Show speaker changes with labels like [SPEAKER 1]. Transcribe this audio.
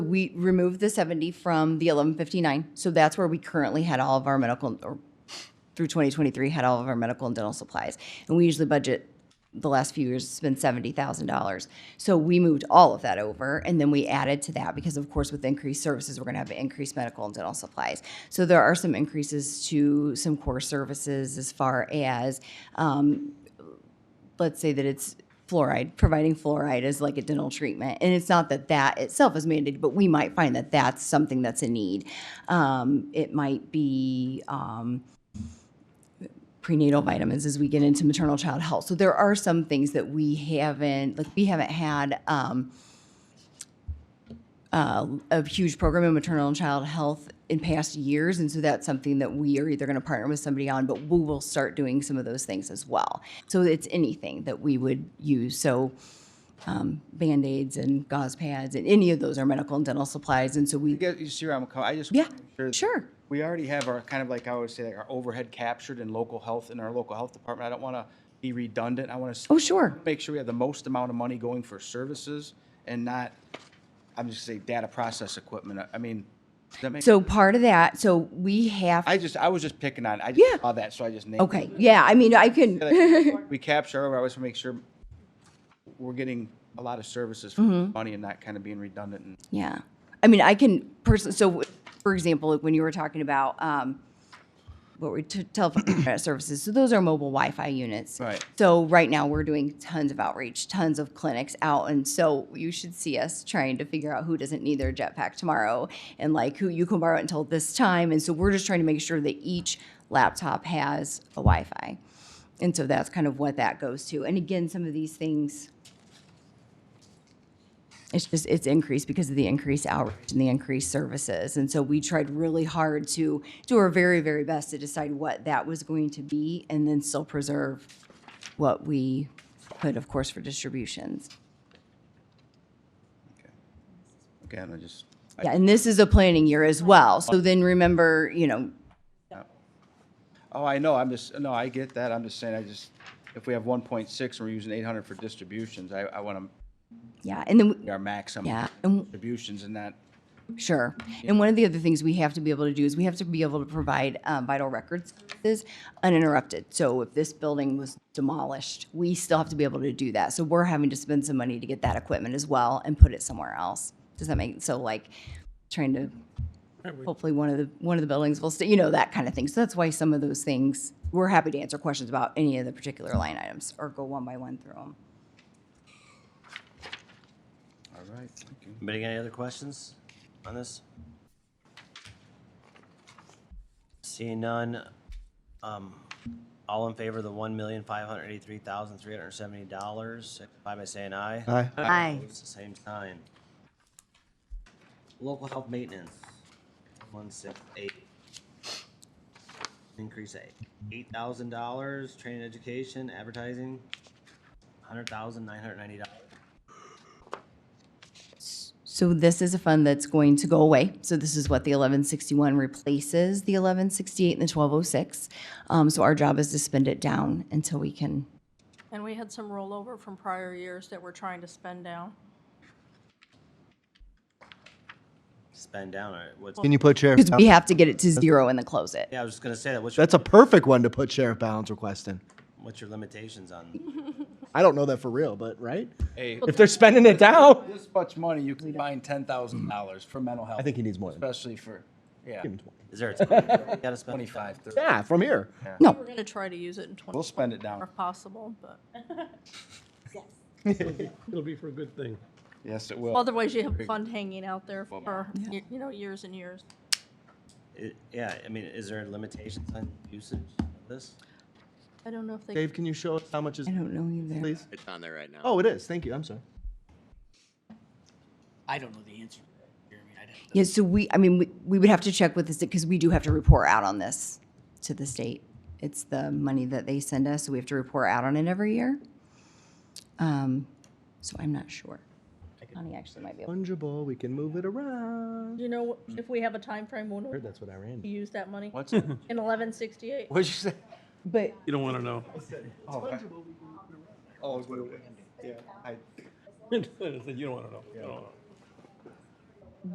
[SPEAKER 1] we removed the 70 from the 1159. So that's where we currently had all of our medical, or through 2023, had all of our medical and dental supplies. And we usually budget, the last few years, it's been $70,000. So we moved all of that over, and then we added to that, because of course, with increased services, we're going to have increased medical and dental supplies. So there are some increases to some core services as far as um, let's say that it's fluoride, providing fluoride as like a dental treatment. And it's not that that itself is mandated, but we might find that that's something that's a need. Um, it might be, um, prenatal vitamins as we get into maternal child health. So there are some things that we haven't, like we haven't had, um, uh, a huge program in maternal and child health in past years, and so that's something that we are either going to partner with somebody on, but we will start doing some of those things as well. So it's anything that we would use. So um, band aids and gauze pads and any of those are medical and dental supplies, and so we
[SPEAKER 2] You guys- you see where I'm coming, I just.
[SPEAKER 1] yeah
[SPEAKER 2] wanna make sure that
[SPEAKER 1] sure
[SPEAKER 2] We already have our, kind of like I always say, like our overhead captured in local health, in our local health department. I don't want to be redundant. I want to
[SPEAKER 1] oh sure
[SPEAKER 2] make sure we have the most amount of money going for services and not, I'm just saying, data process equipment. I- I mean, does that make?
[SPEAKER 1] so part of that so we have
[SPEAKER 2] I just, I was just picking on, it. I
[SPEAKER 1] Yeah.
[SPEAKER 2] just saw that, so I just named. it.
[SPEAKER 1] okay yeah I mean I can
[SPEAKER 2] Like, We capture, I always want to make sure we're getting a lot of services for
[SPEAKER 1] Mm-hmm.
[SPEAKER 2] money and not kind of being redundant and
[SPEAKER 1] Yeah. I mean, I can personally, so w- for example, like when you were talking about, um, what we, t- telephone internet services, so those are mobile Wi-Fi units.
[SPEAKER 2] Right.
[SPEAKER 1] So right now, we're doing tons of outreach, tons of clinics out, and so you should see us trying to figure out who doesn't need their jetpack tomorrow, and like who you can borrow it until this time, and so we're just trying to make sure that each laptop has a Wi-Fi. And so that's kind of what that goes to, and again, some of these things it's just, it's increased because of the increased outreach and the increased services. And so we tried really hard to do our very, very best to decide what that was going to be and then still preserve what we could, of course, for distributions.
[SPEAKER 2] again, I just. I-
[SPEAKER 1] Yeah, and this is a planning year as well. So then remember, you know,
[SPEAKER 2] Oh, I know, I'm just, no, I get that, I'm just saying, I just, if we have one point six and we're using eight hundred for distributions, I, I wanna,
[SPEAKER 1] yeah, and then, we-
[SPEAKER 2] be our maximum.
[SPEAKER 1] yeah, and
[SPEAKER 2] Distributions and that,
[SPEAKER 1] Sure. And one of the other things we have to be able to do is we have to be able to provide um, vital records services uninterrupted. So if this building was demolished, we still have to be able to do that. So we're having to spend some money to get that equipment as well and put it somewhere else. Does that make, so like, trying to, hopefully one of the, one of the buildings will stay, you know, that kind of thing. So that's why some of those things, we're happy to answer questions about any of the particular line items or go one by one through them.
[SPEAKER 2] all right, thank you.
[SPEAKER 3] Anybody got any other questions on this? Seeing none, um, all in favor of the one million five hundred eighty-three thousand three hundred seventy dollars, signify by saying aye. Aye.
[SPEAKER 1] Aye.
[SPEAKER 3] Opposed, the same sign. Local health maintenance, one six eight. Increase at eight thousand dollars, training, education, advertising, hundred thousand nine hundred ninety dollars.
[SPEAKER 1] So this is a fund that's going to go away. So this is what the eleven sixty-one replaces, the eleven sixty-eight and the twelve oh six. Um, so our job is to spend it down until we can,
[SPEAKER 4] And we had some rollover from prior years that we're trying to spend down.
[SPEAKER 3] Spend down, all right, what's,
[SPEAKER 5] Can you put sheriff?
[SPEAKER 1] because we have to get it to zero and then close it.
[SPEAKER 3] yeah, I was just gonna say that, what's your
[SPEAKER 5] That's a perfect one to put sheriff balance request in.
[SPEAKER 3] What's your limitations on?
[SPEAKER 5] I don't know that for real, but right?
[SPEAKER 2] Hey.
[SPEAKER 5] If they're spending it down,
[SPEAKER 2] This much money, you can find ten thousand dollars for mental health.
[SPEAKER 5] I think he needs more than
[SPEAKER 2] Especially for, yeah,
[SPEAKER 3] Is there a time? you gotta spend?
[SPEAKER 2] twenty-five, thirty.
[SPEAKER 5] yeah, from here.
[SPEAKER 1] No,
[SPEAKER 4] We're gonna try to use it in twenty.
[SPEAKER 2] We'll spend it down.
[SPEAKER 4] If possible, but
[SPEAKER 6] It'll be for a good thing.
[SPEAKER 2] Yes, it will.
[SPEAKER 4] otherwise you have fund hanging out there for, y- you know, years and years.
[SPEAKER 3] i- Yeah, I mean, is there limitations on usage of this?
[SPEAKER 4] I don't know if they,
[SPEAKER 5] Dave, can you show us how much is,
[SPEAKER 1] I don't know either.
[SPEAKER 5] please?
[SPEAKER 7] It's on there right now.
[SPEAKER 5] Oh, it is. Thank you. I'm sorry.
[SPEAKER 8] I don't know the answer, to that, Jeremy. I don't.
[SPEAKER 1] Yeah, so we, I mean, we, we would have to check with this, because we do have to report out on this to the state. It's the money that they send us, so we have to report out on it every year. Um, so I'm not sure. Connie actually might be able,
[SPEAKER 5] Fungible. We can move it around.
[SPEAKER 4] do you know if we have a time frame when we
[SPEAKER 5] That's what I ran.
[SPEAKER 4] use that money?
[SPEAKER 2] What's, it?
[SPEAKER 4] In eleven sixty-eight?
[SPEAKER 2] what'd you say?
[SPEAKER 1] but
[SPEAKER 6] You don't want to know.
[SPEAKER 2] Oh, I- Oh, wait, wait, yeah, I,
[SPEAKER 6] You don't want to know. You don't wanna know.